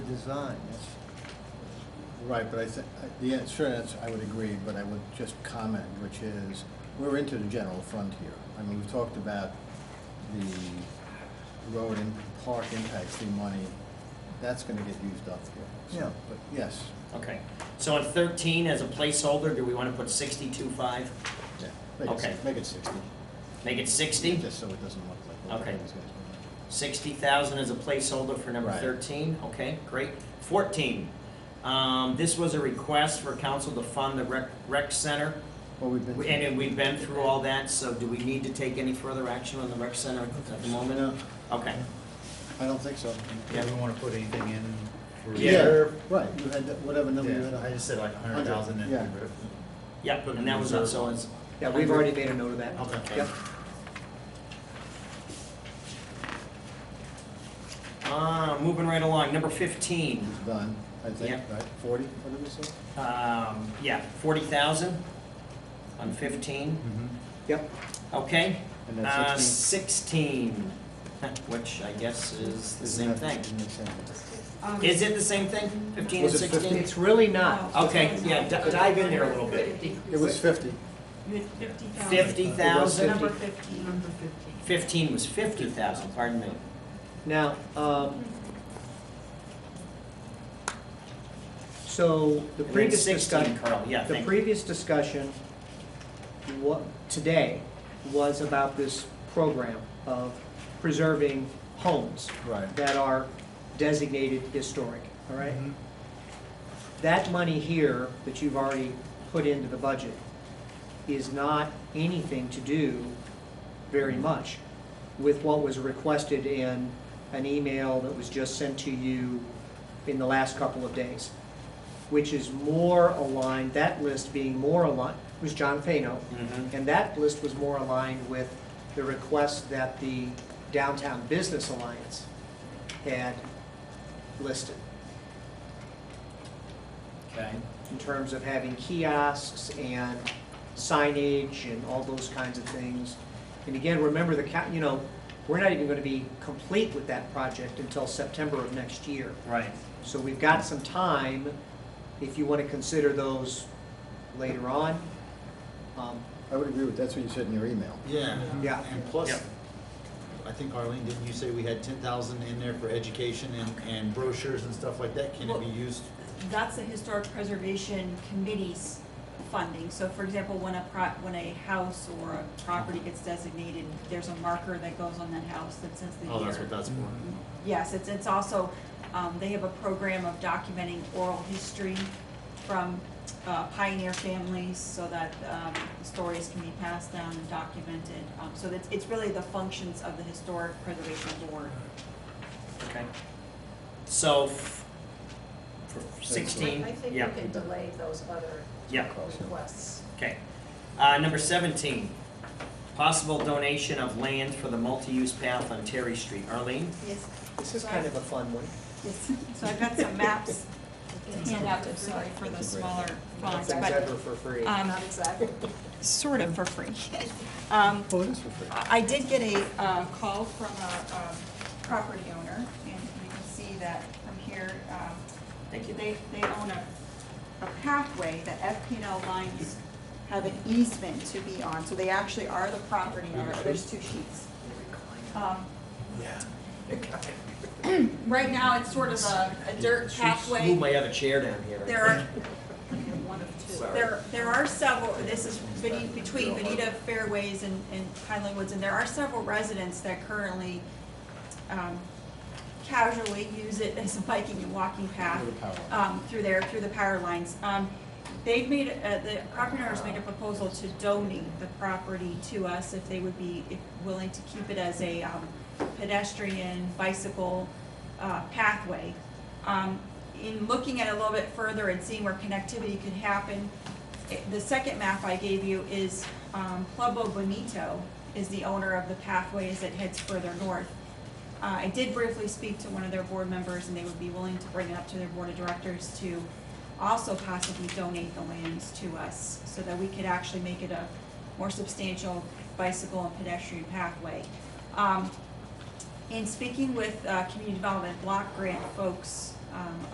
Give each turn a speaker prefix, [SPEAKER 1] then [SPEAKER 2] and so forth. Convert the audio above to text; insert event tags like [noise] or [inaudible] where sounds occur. [SPEAKER 1] design, that's,
[SPEAKER 2] Right, but I think, yeah, sure, that's, I would agree, but I would just comment, which is, we're into the general fund here. I mean, we've talked about the road and park impacts, the money, that's gonna get used up here. So,
[SPEAKER 1] Yeah.
[SPEAKER 2] But yes,
[SPEAKER 3] Okay, so in thirteen, as a placeholder, do we wanna put sixty-two five?
[SPEAKER 2] yeah, make it,
[SPEAKER 3] Okay.
[SPEAKER 2] si- make it sixty,
[SPEAKER 3] Make it sixty?
[SPEAKER 2] just so it doesn't look like.
[SPEAKER 3] Okay.
[SPEAKER 2] everything's gonna-
[SPEAKER 3] Sixty thousand as a placeholder for number
[SPEAKER 2] Right.
[SPEAKER 3] thirteen, okay, great. Fourteen, um, this was a request for council to fund the rec, rec center.
[SPEAKER 2] Well, we've been.
[SPEAKER 3] And then we've been through all that, so do we need to take any further action on the rec center at the moment? Okay,
[SPEAKER 2] I don't think so.
[SPEAKER 3] Yeah.
[SPEAKER 4] Yeah, we wanna put anything in for
[SPEAKER 3] Yeah.
[SPEAKER 4] reserve.
[SPEAKER 2] Right, you had, that- whatever number you had.
[SPEAKER 4] Yeah, I just said like a hundred thousand and.
[SPEAKER 2] Yeah.
[SPEAKER 3] yep, and that was, so it's,
[SPEAKER 1] yeah, we've already made a note of that.
[SPEAKER 4] Okay.
[SPEAKER 1] Yep.
[SPEAKER 3] uh, moving right along, number fifteen,
[SPEAKER 2] It's done, I think,
[SPEAKER 3] Yeah.
[SPEAKER 2] right, forty, what did we say?
[SPEAKER 3] um, yeah, forty thousand on fifteen.
[SPEAKER 4] Mhm.
[SPEAKER 1] Yep,
[SPEAKER 3] Okay.
[SPEAKER 2] And then
[SPEAKER 3] Uh, Sixteen, [laughs] which I guess is the same
[SPEAKER 2] Isn't
[SPEAKER 3] thing.
[SPEAKER 2] that- isn't that same?
[SPEAKER 5] Um,
[SPEAKER 3] Is it the same thing, fifteen and
[SPEAKER 2] Was it
[SPEAKER 3] sixteen?
[SPEAKER 1] it's really not.
[SPEAKER 5] no,
[SPEAKER 3] Okay,
[SPEAKER 5] it's
[SPEAKER 3] yeah,
[SPEAKER 5] not.
[SPEAKER 3] d- dive in there a little bit.
[SPEAKER 5] Fifty.
[SPEAKER 2] It was fifty.
[SPEAKER 5] You had fifty thousand.
[SPEAKER 3] Fifty thousand?
[SPEAKER 5] Number fifty. Number fifty.
[SPEAKER 3] Fifteen was fifty thousand, pardon me.
[SPEAKER 1] Now, um, so the
[SPEAKER 3] And then
[SPEAKER 1] previous
[SPEAKER 3] Sixteen,
[SPEAKER 1] discussion,
[SPEAKER 3] Carl, yeah,
[SPEAKER 1] the
[SPEAKER 3] thank you.
[SPEAKER 1] previous discussion, what, today, was about this program of preserving homes
[SPEAKER 2] Right.
[SPEAKER 1] that are designated historic, all right?
[SPEAKER 4] Mhm.
[SPEAKER 1] That money here that you've already put into the budget is not anything to do very much with what was requested in an email that was just sent to you in the last couple of days, which is more aligned, that list being more aligned, was John Fano.
[SPEAKER 3] Mhm.
[SPEAKER 1] And that list was more aligned with the request that the Downtown Business Alliance had listed
[SPEAKER 3] Okay,
[SPEAKER 1] in terms of having kiosks and signage and all those kinds of things. And again, remember the, ca- you know, we're not even going to be complete with that project until September of next year.
[SPEAKER 3] right.
[SPEAKER 1] So we've got some time if you want to consider those later on. Um,
[SPEAKER 2] I would agree with, that's what you said in your email.
[SPEAKER 4] Yeah.
[SPEAKER 1] Yeah.
[SPEAKER 4] And plus,
[SPEAKER 3] Yep.
[SPEAKER 4] I think Arlene, didn't you say we had ten thousand in there for education and, and brochures and stuff like that? Can it be
[SPEAKER 5] Well-
[SPEAKER 4] used?
[SPEAKER 5] That's the historic preservation committee's funding. So for example, when a pro, when a house or a property gets designated, there's a marker that goes on that house that says the year.
[SPEAKER 4] Oh, that's what that's for.
[SPEAKER 5] Yes, it's, it's also, um, they have a program of documenting oral history from uh, pioneer families so that, um, stories can be passed down and documented. Um, so that's, it's really the functions of the Historic Preservation Board.
[SPEAKER 3] Okay. So, f- for sixteen,
[SPEAKER 6] I I think we
[SPEAKER 3] yeah,
[SPEAKER 6] can delay those other
[SPEAKER 3] yeah,
[SPEAKER 6] requests.
[SPEAKER 3] okay. Uh, number seventeen, possible donation of land for the multi-use path on Terry Street. Arlene?
[SPEAKER 5] Yes.
[SPEAKER 1] This is kind of a fun one.
[SPEAKER 5] Yes, so I've got some maps to hand out, I'm sorry for the smaller fonts, but,
[SPEAKER 1] Ever for free.
[SPEAKER 5] um,
[SPEAKER 6] Not exactly.
[SPEAKER 5] sort of for free. [laughs] Um,
[SPEAKER 2] Oh, it is for free.
[SPEAKER 5] I I did get a uh, call from a um, property owner, and you can see that from here. um,
[SPEAKER 3] Thank you.
[SPEAKER 5] They, they own a, a pathway that FPL lines have an easement to be on, so they actually are the property owner. There's two sheets. Um, Right now, it's sort of a a dirt pathway.
[SPEAKER 3] Move my other chair down here.
[SPEAKER 5] There are,
[SPEAKER 6] One of two.
[SPEAKER 3] Sorry.
[SPEAKER 5] There, there are several, this is bene- between Benita Fairways and, and Highland Woods, and there are several residents that currently, um, casually use it as a biking and walking path,
[SPEAKER 2] Through the power lines.
[SPEAKER 5] um, through there, through the power lines. Um, they've made, uh, the property owners made a proposal to donate the property to us if they would be if willing to keep it as a, um, pedestrian, bicycle, uh, pathway. Um, in looking at it a little bit further and seeing where connectivity could happen, it- the second map I gave you is, um, Pueblo Bonito is the owner of the pathway as it heads further north. Uh, I did briefly speak to one of their board members, and they would be willing to bring it up to their board of directors to also possibly donate the lands to us, so that we could actually make it a more substantial bicycle and pedestrian pathway. Um, in speaking with uh, community development block grant folks um,